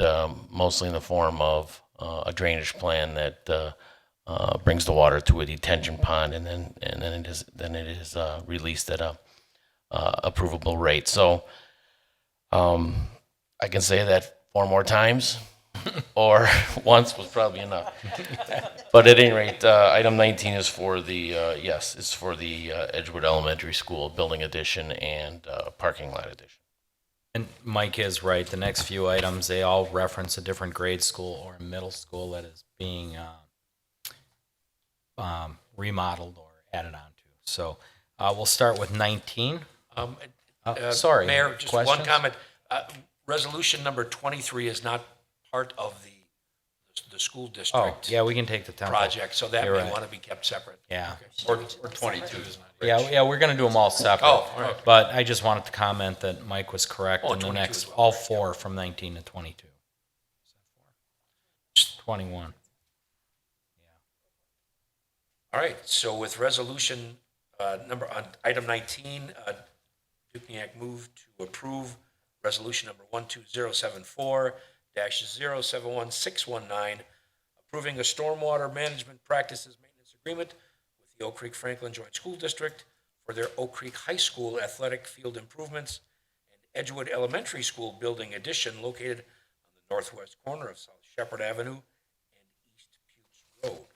um, mostly in the form of uh, a drainage plan that uh, uh, brings the water to a detention pond, and then and then it is then it is uh, released at a uh, approvable rate. So, um, I can say that four more times, or once was probably enough. But at any rate, uh, item 19 is for the, uh, yes, it's for the uh, Edgewood Elementary School building addition and uh, parking lot addition. And Mike is right. The next few items, they all reference a different grade school or middle school that is being uh, um, remodeled or added on to. So uh, we'll start with 19. Um, Uh, uh, sorry, Mayor, just one questions? comment. Uh, Resolution number 23 is not part of the, the school Oh, district yeah, we can take the temple. project, so that You're may right. want to be kept separate. Yeah. Or or 22 is not. Yeah, yeah, we're going to do them all separate. Oh, all right. But I just wanted to comment that Mike was correct Oh, in the 22 next, as well, all four from 19 to 22. 21. All right, so with resolution uh, number, on item 19, uh, Dukenyak moved to approve resolution number 12074-071619, approving a stormwater management practices maintenance agreement with the Oak Creek Franklin Joint School District for their Oak Creek High School athletic field improvements and Edgewood Elementary School building addition located on the northwest corner of South Shepherd Avenue and East Puget Road.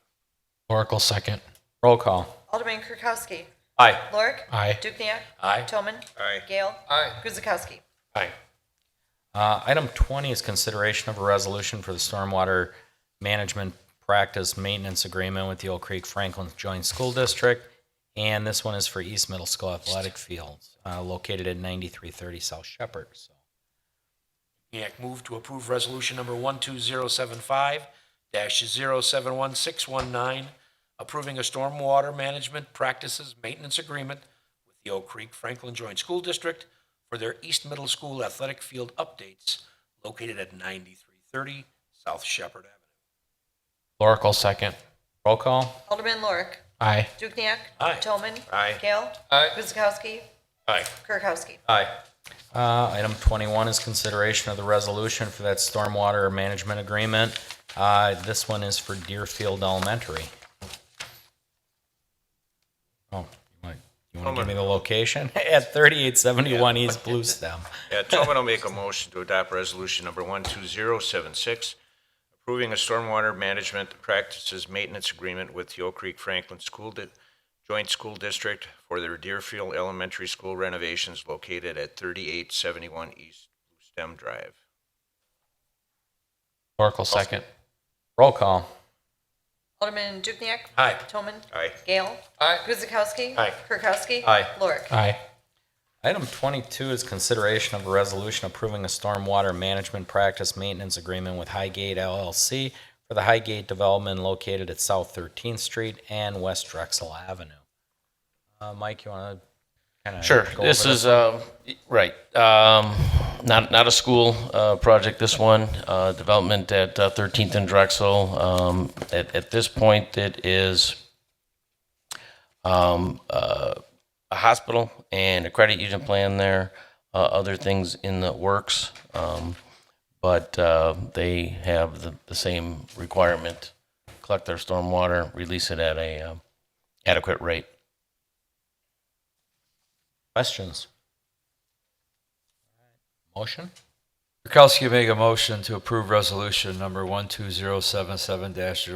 Oracle second. Roll call. Alderman Kirkowski. Aye. Lorik. Aye. Dukenyak. Aye. Toman. Aye. Gale. Aye. Guzekowski. Aye. Uh, Item 20 is consideration of a resolution for the stormwater management practice maintenance agreement with the Oak Creek Franklin Joint School District, and this one is for East Middle School Athletic Fields, uh, located at 9330 South Shepherd. So, Dukenyak move to approve resolution number 12075-071619, approving a stormwater management practices maintenance agreement with the Oak Creek Franklin Joint School District for their East Middle School athletic field updates located at 9330 South Shepherd Avenue. Oracle second. Roll call. Alderman Lorik. Aye. Dukenyak. Aye. Toman. Aye. Gale. Aye. Guzekowski. Aye. Kirkowski. Aye. Uh, Item 21 is consideration of the resolution for that stormwater management agreement. Uh, This one is for Deerfield Elementary. Oh, Mike, you want to give me the location? At 3871 East Blue Stem. Yeah, Tobin will make a motion to adopt resolution number 12076, approving a stormwater management practices maintenance agreement with the Oak Creek Franklin School Di- Joint School District for their Deerfield Elementary School renovations located at 3871 East Blue Stem Drive. Oracle second. Roll call. Alderman Dukenyak. Aye. Toman. Aye. Gale. Aye. Guzekowski. Aye. Kirkowski. Aye. Lorik. Aye. Item 22 is consideration of a resolution approving a stormwater management practice maintenance agreement with Highgate LLC for the Highgate development located at South 13th Street and West Drexel Avenue. Uh, Mike, you want to kind of? Sure. This is um, right. Um, not not a school uh, project. This one uh, development at uh, 13th and Drexel. Um, at at this point, it is um, uh, a hospital and a credit union plan there. Uh, other things in the works, um, but uh, they have the, the same requirement: collect their stormwater, release it at a um, adequate rate. Questions? Motion? Kirkowski make a motion to approve resolution number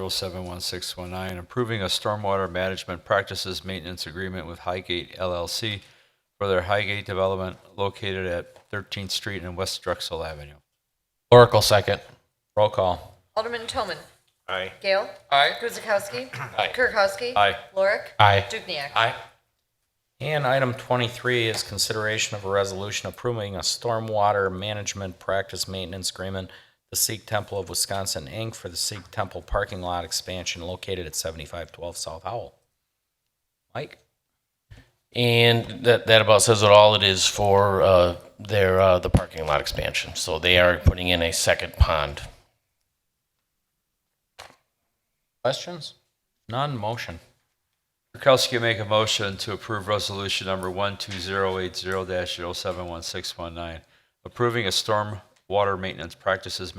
12077-071619, approving a stormwater management practices maintenance agreement with Highgate LLC for their Highgate development located at 13th Street and West Drexel Avenue. Oracle second. Roll call. Alderman Toman. Aye. Gale. Aye. Guzekowski. Kirkowski. Aye. Lorik. Aye. Dukenyak. Aye. And item 23 is consideration of a resolution approving a stormwater management practice maintenance agreement, the Sikh Temple of Wisconsin, Inc., for the Sikh Temple parking lot expansion located at 7512 South Howell. Mike? And that, that about says it all. It is for uh, their uh, the parking lot expansion. So they are putting in a second pond. Questions? None, motion. Kirkowski make a motion to approve resolution number 12080-071619, approving a stormwater maintenance practices